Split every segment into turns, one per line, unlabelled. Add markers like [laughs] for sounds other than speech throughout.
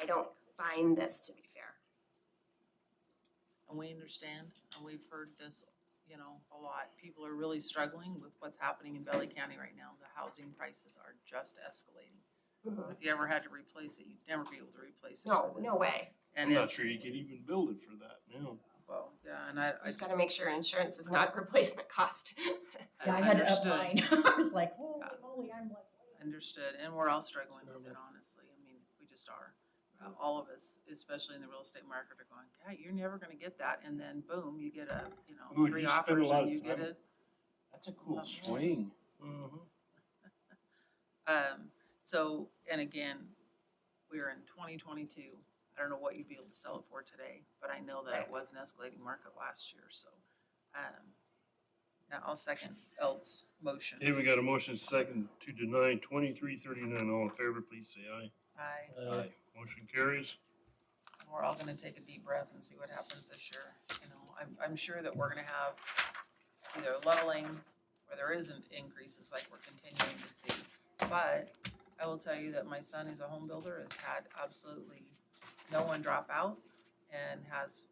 I don't find this to be fair.
And we understand, and we've heard this, you know, a lot. People are really struggling with what's happening in Valley County right now. The housing prices are just escalating. If you ever had to replace it, you'd never be able to replace it.
No,
for
no
this.
way.
And
I'm not
Mm-hmm. it's,
sure you could even build it for that now.
well, yeah, and I, I
Just gotta
just,
make sure insurance is not replacement cost.
I
Yeah, I had to up
understood,
mine. [laughs] I was like, holy
Yeah.
moly, I'm like.
understood. And we're all struggling with it, honestly. I mean, we just are. Uh, All of us, especially in the real estate market, are going, God, you're never gonna get that. And then boom, you get a, you
Ooh,
know,
you
three
spend a
offers
lot
and
of
you get
time
a,
That's a cool
Okay.
swing. Mm-hmm.
Um, so, and again, we're in twenty twenty-two. I don't know what you'd be able to sell it for today, but I know that it
Right.
was an escalating market last year, so. um, Now I'll second Elt's motion.
Hey, we got a motion second to deny twenty-three thirty-nine. All in favor, please say aye.
Aye.
Motion carries.
We're all gonna take a deep breath and see what happens this year, you know, I'm, I'm sure that we're gonna have either leveling or there isn't increases like we're continuing to see. But I will tell you that my son, who's a home builder, has had absolutely no one drop out and has,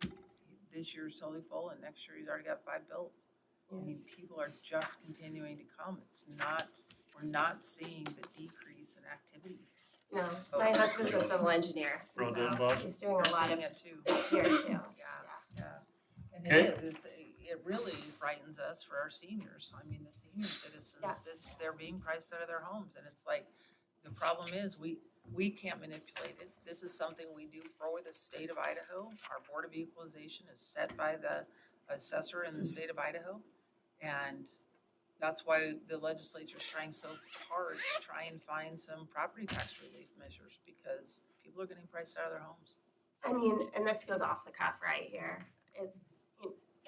this year's totally full and next year he's already got five builds. I mean, people are just continuing to come, it's not, we're not seeing the decrease in activity.
No, [laughs] my husband's a civil engineer,
Well
so
done, Bob.
he's doing
We're
a lot
seeing
of
it too.
it here too.
Yeah, yeah. And
Okay.
it is, it's, it really frightens us for our seniors. I mean, the senior citizens,
Yeah.
this, they're being priced out of their homes and it's like, the problem is, we, we can't manipulate it. This is something we do for the state of Idaho. Our Board of Equalization is set by the assessor in the state of Idaho. And that's why the legislature's trying so hard to try and find some property tax relief measures because people are getting priced out of their homes.
I mean, and this goes off the cuff right here, is,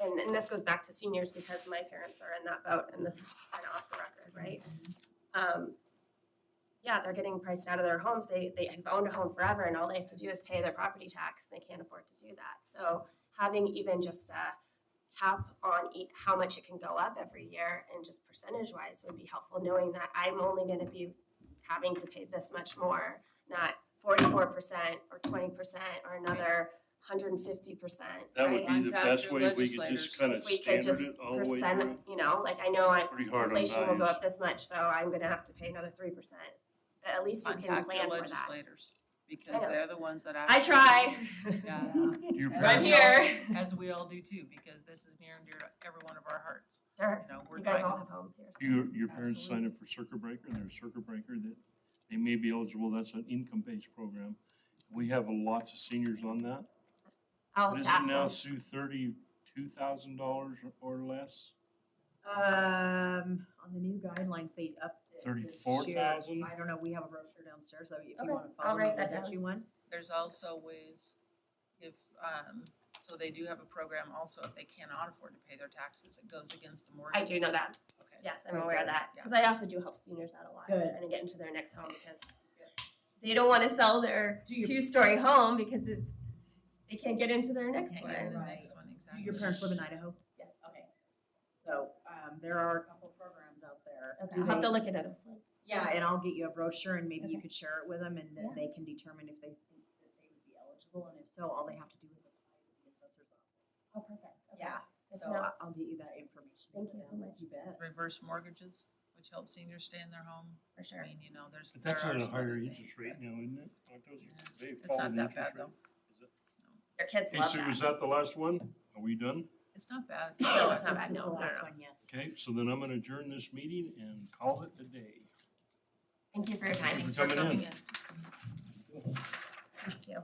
and, and this goes back to seniors because my parents are in that boat and this is kind of off the record, right? Um, yeah, they're getting priced out of their homes. They, they have owned a home forever and all they have to do is pay their property tax and they can't afford to do that. So having even just a cap on e- how much it can go up every year and just percentage wise would be helpful, knowing that I'm only gonna be having to pay this much more, not forty-four percent or twenty percent or another hundred and fifty percent,
That would be the
Contact
best
your
way if we could
legislators.
just kind of
if we could
standard
just
it all the way
percent,
through.
you know, like I know I-
Pretty hard on
inflation will go
values.
up this much, so I'm gonna have to pay another three percent. At least you can
Contact your
plan for that.
legislators because
know.
they're the ones that
I
actually.
try,
Yeah,
Your
[laughs]
I'm
I'm
parents-
here.
as we all do too, because this is near and dear to every one of our hearts. You
Sure,
know, we're
you guys
trying
all
to,
have homes here. so-
Your, your parents sign up for circuit breaker, and they're a circuit breaker that they may be eligible, that's an income-based program. We have lots of seniors on that.
I'll
What is it
pass
now,
them.
Sue, thirty-two thousand dollars or less?
Um, on the new guidelines, they upped it. this year.
34,000?
I don't know, we have a brochure downstairs, so if you
Okay,
wanna
I'll
follow,
write
I'll
that
get
down.
you one.
there's also ways if, um, so they do have a program also, if they cannot afford to pay their taxes, it goes against the mortgage.
I do know that,
Okay.
yes, I'm aware of that,
Yeah.
because I also do help seniors out a lot,
Good.
trying to get into their next home because they don't wanna sell their
Do your-
two-story home because it's, they can't get into their next
Can't
one.
get in the
Right.
next one,
Do
exactly.
your parents live in Idaho?
Yes.
Okay. So, um, there are a couple programs out there.
Okay, Oh,
Do
I'll have
they-
to look into this one.
Yeah, and I'll get you a brochure and maybe you
Okay.
could share it with them and then
Yeah.
they can determine if they think that they would be eligible and if so, all they have to do is apply to the assessor's office.
Oh, perfect. Okay.
Yeah,
Good to
so
know.
I- I'll get you that information.
Thank
for
you so
them.
much.
You bet.
Reverse mortgages, which helps seniors stay in their home.
For
I
sure.
mean, you know, there's.
But that's
there
at
are
a
some other
higher
things,
interest rate
but-
now, isn't it? Aren't those-
Yeah.
They've
It's
fallen
not that
interest
bad
rate.
though.
Their kids
Okay,
love
so is
that.
that the last one? Are we done?
It's not bad.
No, it's not
Oh, This
bad.
was
No,
the
no,
last
no.
one, yes.
Okay, so then I'm gonna adjourn this meeting and call it a day.
Thank you for your time.
Thank you
Thanks for coming in.
Thank you.